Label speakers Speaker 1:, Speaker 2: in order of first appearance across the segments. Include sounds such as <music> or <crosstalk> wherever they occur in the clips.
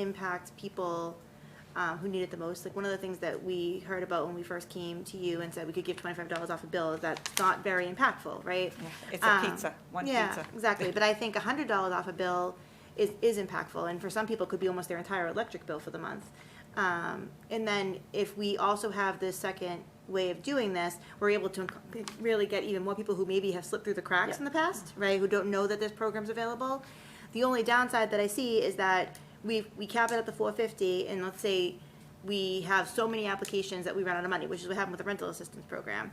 Speaker 1: impact people um, who need it the most. Like, one of the things that we heard about when we first came to you and said we could give twenty-five dollars off a bill, is that's not very impactful, right?
Speaker 2: It's a
Speaker 1: Um,
Speaker 2: pizza, one
Speaker 1: yeah,
Speaker 2: pizza.
Speaker 1: Exactly, but I think hundred dollars off a bill is, is impactful, and for some people, it could be almost their entire electric bill for the month. Um, and then if we also have this second way of doing this, we're able to inc- really get even more people who maybe have slipped through the cracks in the past, right, who don't know that this program's available. The only downside that I see is that we, we cap it at the four fifty, and let's say we have so many applications that we run out of money, which is what happened with the rental assistance program.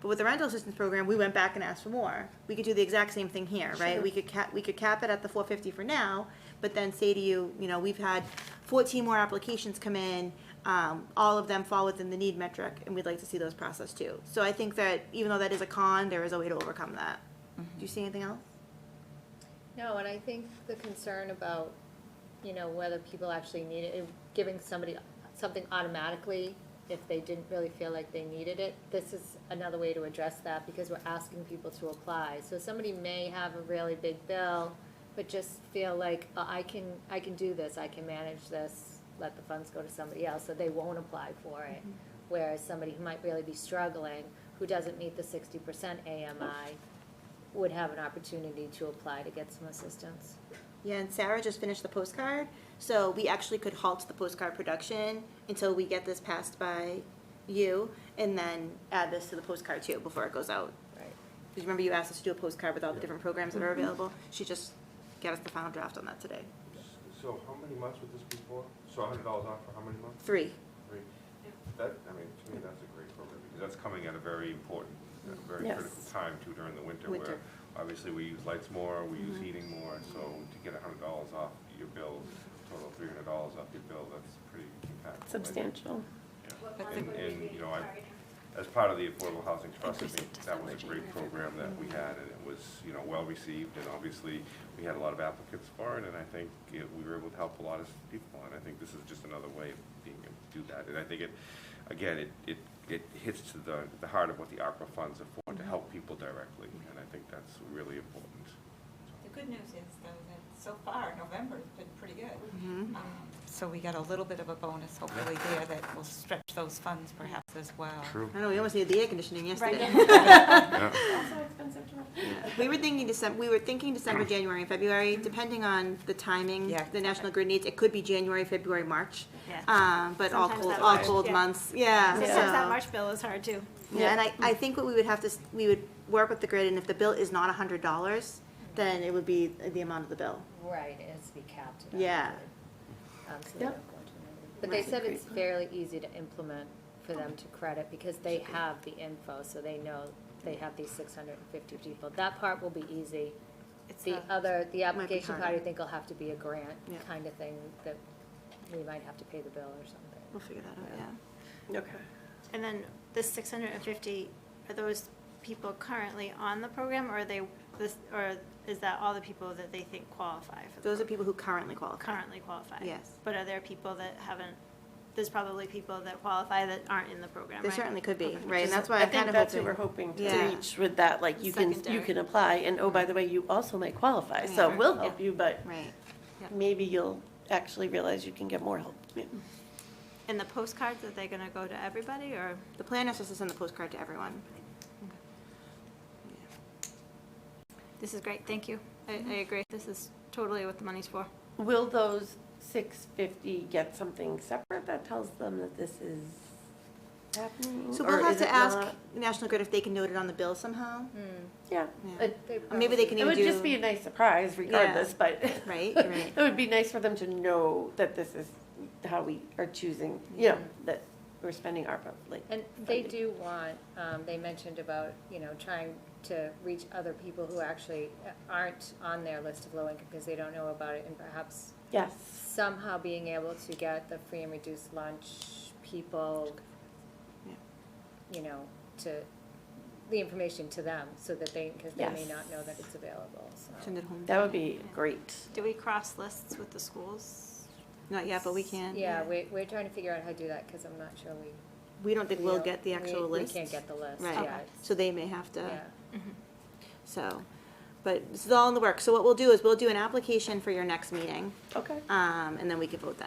Speaker 1: But with the rental assistance program, we went back and asked for more. We could do the exact same thing here, right? We could cap, we could cap it at the four fifty for now, but then say to you, you know, we've had fourteen more applications come in, um, all of them fall within the need metric, and we'd like to see those processed too. So I think that even though that is a con, there is a way to overcome that. Do you see anything else?
Speaker 3: No, and I think the concern about, you know, whether people actually need it, giving somebody something automatically if they didn't really feel like they needed it, this is another way to address that because we're asking people to apply. So somebody may have a really big bill, but just feel like, "Uh, I can, I can do this, I can manage this, let the funds go to somebody else, so they won't apply for it. Whereas somebody who might really be struggling, who doesn't meet the sixty percent AMI, would have an opportunity to apply to get some assistance.
Speaker 1: Yeah, and Sarah just finished the postcard, so we actually could halt the postcard production until we get this passed by you, and then add this to the postcard too before it goes out.
Speaker 3: Right.
Speaker 1: Because remember you asked us to do a postcard with all the different programs that are available? She just got us the final draft on that today.
Speaker 4: So how many months would this be for? So hundred dollars off for how many months?
Speaker 1: Three.
Speaker 4: Three? That, I mean, to me, that's a great program, because that's coming at a very important, a very
Speaker 5: Yes.
Speaker 4: critical time too during the winter,
Speaker 1: Winter.
Speaker 4: where obviously we use lights more, we
Speaker 5: Mm-hmm.
Speaker 4: use heating more, so to get hundred dollars off your bill, total three hundred dollars off your bill, that's pretty impactful.
Speaker 5: substantial.
Speaker 4: Yeah. And, and, you know, I, as part of the Affordable Housing Trust, I think that was a great program that we had, and it was, you know, well-received, and obviously, we had a lot of applicants for it, and I think it- we were able to help a lot of people, and I think this is just another way of being able to do that. And I think it, again, it, it, it hits to the, the heart of what the ARPA funds are for,
Speaker 1: Mm-hmm.
Speaker 4: to help people directly, and I think that's really important.
Speaker 2: The good news is though that so far, November's been pretty
Speaker 1: Mm-hmm.
Speaker 2: good. Um, So we got a little bit of a bonus hopefully there that will stretch those funds perhaps as well.
Speaker 1: I know, we almost needed the air conditioning yesterday.
Speaker 4: Yeah.
Speaker 1: We were thinking December, we were thinking December, January, and February, depending on the timing
Speaker 2: Yeah.
Speaker 1: the National Grid needs. It could be January, February, March.
Speaker 6: Yeah.
Speaker 1: Um, but all
Speaker 6: Sometimes
Speaker 1: cold,
Speaker 6: that
Speaker 1: all
Speaker 6: March,
Speaker 1: cold
Speaker 6: yeah.
Speaker 1: months, yeah.
Speaker 6: Sometimes
Speaker 1: so-
Speaker 6: that March bill is hard too.
Speaker 1: Yeah, and I, I think what we would have to, s- we would work with the grid, and if the bill is not a hundred dollars, then it would be the amount of the bill.
Speaker 3: Right, it has to be capped. at
Speaker 1: Yeah.
Speaker 3: 100, um, so they don't go into another- But they said it's fairly easy to implement for them to credit because they have the info, so they know they have these six hundred and fifty people. That part will be easy.
Speaker 2: It's
Speaker 3: The
Speaker 2: a-
Speaker 3: other, the application part, I
Speaker 1: harder.
Speaker 3: think will have to be a grant
Speaker 1: Yeah.
Speaker 3: kind of thing that we might have to pay the bill or something.
Speaker 1: We'll figure that out, yeah.
Speaker 5: Okay.
Speaker 6: And then this six hundred and fifty, are those people currently on the program or are they, this, or is that all the people that they think qualify for? the
Speaker 1: Those are
Speaker 6: program?
Speaker 1: people who currently qualify.
Speaker 6: Currently qualify?
Speaker 1: Yes.
Speaker 6: But are there people that haven't, there's probably people that qualify that aren't in the program,
Speaker 1: There
Speaker 6: right?
Speaker 1: certainly could be,
Speaker 6: Okay.
Speaker 1: right, and that's why
Speaker 5: I
Speaker 1: I'm
Speaker 5: think
Speaker 1: kind of
Speaker 5: that's what we're
Speaker 1: hoping.
Speaker 5: hoping to
Speaker 1: Yeah.
Speaker 5: reach with that, like you can, you
Speaker 6: Secondary.
Speaker 5: can apply, and oh, by the way, you also might qualify, so
Speaker 1: Yeah.
Speaker 5: we'll help you, but
Speaker 1: Right,
Speaker 5: maybe you'll actually realize you can get more help. Yeah.
Speaker 6: And the postcards, are they gonna go to everybody or?
Speaker 1: the plan is just to send the postcard to everyone.
Speaker 6: This is great, thank you. I, I agree. This is totally what the money's for.
Speaker 5: Will those six fifty get something separate that tells them that this is happening?
Speaker 1: So
Speaker 5: or
Speaker 1: we'll have
Speaker 5: is
Speaker 1: to
Speaker 5: it
Speaker 1: ask
Speaker 5: not?
Speaker 1: National Grid if they can note it on the bill somehow.
Speaker 5: Yeah.
Speaker 1: Yeah.
Speaker 5: It-
Speaker 1: Or maybe they
Speaker 3: Hmm. probably-
Speaker 1: can
Speaker 5: It
Speaker 1: even
Speaker 5: would
Speaker 1: do.
Speaker 5: just be a nice surprise regardless, but. <laughs>
Speaker 1: Right, right.
Speaker 5: It would be nice for them to know that this is how we are choosing, you know, that we're spending our like.
Speaker 3: And they
Speaker 5: funding.
Speaker 3: do want, um, they mentioned about, you know, trying to reach other people who actually aren't on their list of low income because they don't know about it and perhaps
Speaker 5: Yes,
Speaker 3: somehow being able to get the free and reduced lunch people,
Speaker 1: Yeah.
Speaker 3: you know, to, the information to them so that they, because they may
Speaker 5: Yes.
Speaker 3: not know that it's available, so.
Speaker 1: Send it home.
Speaker 5: that would be great.
Speaker 6: Do we cross lists with the schools?
Speaker 1: Not yet, but we can.
Speaker 3: Yeah, we, we're trying to figure out how to do that because I'm not sure we.
Speaker 1: We don't think
Speaker 3: we
Speaker 1: we'll
Speaker 3: don't-
Speaker 1: get the
Speaker 3: we-
Speaker 1: actual list.
Speaker 3: We can't get the list,
Speaker 1: Right.
Speaker 3: yeah.
Speaker 1: So uh, they may have to.
Speaker 3: Yeah.
Speaker 1: So, but this is all in the work. So what we'll do is we'll do an application for your next meeting,
Speaker 5: Okay.
Speaker 1: um, and then we can vote then.